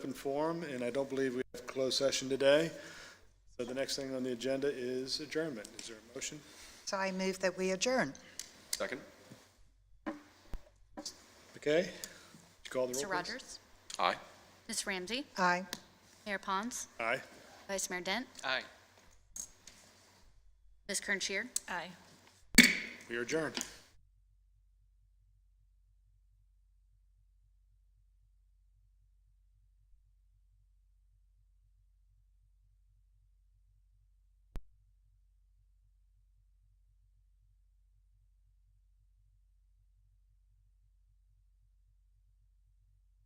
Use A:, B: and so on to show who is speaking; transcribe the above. A: open forum, and I don't believe we have closed session today. So the next thing on the agenda is adjournment. Is there a motion?
B: So I move that we adjourn.
C: Second?
A: Okay? Would you call the roll,
D: Mr.
A: please?
D: Rogers?
C: Aye.
D: Ms. Ramsey?
B: Aye.
D: Mayor Pons?
A: Aye.
D: Vice Mayor Dent?
C: Aye.
D: Ms. Kernscher? Aye.
A: We are adjourned.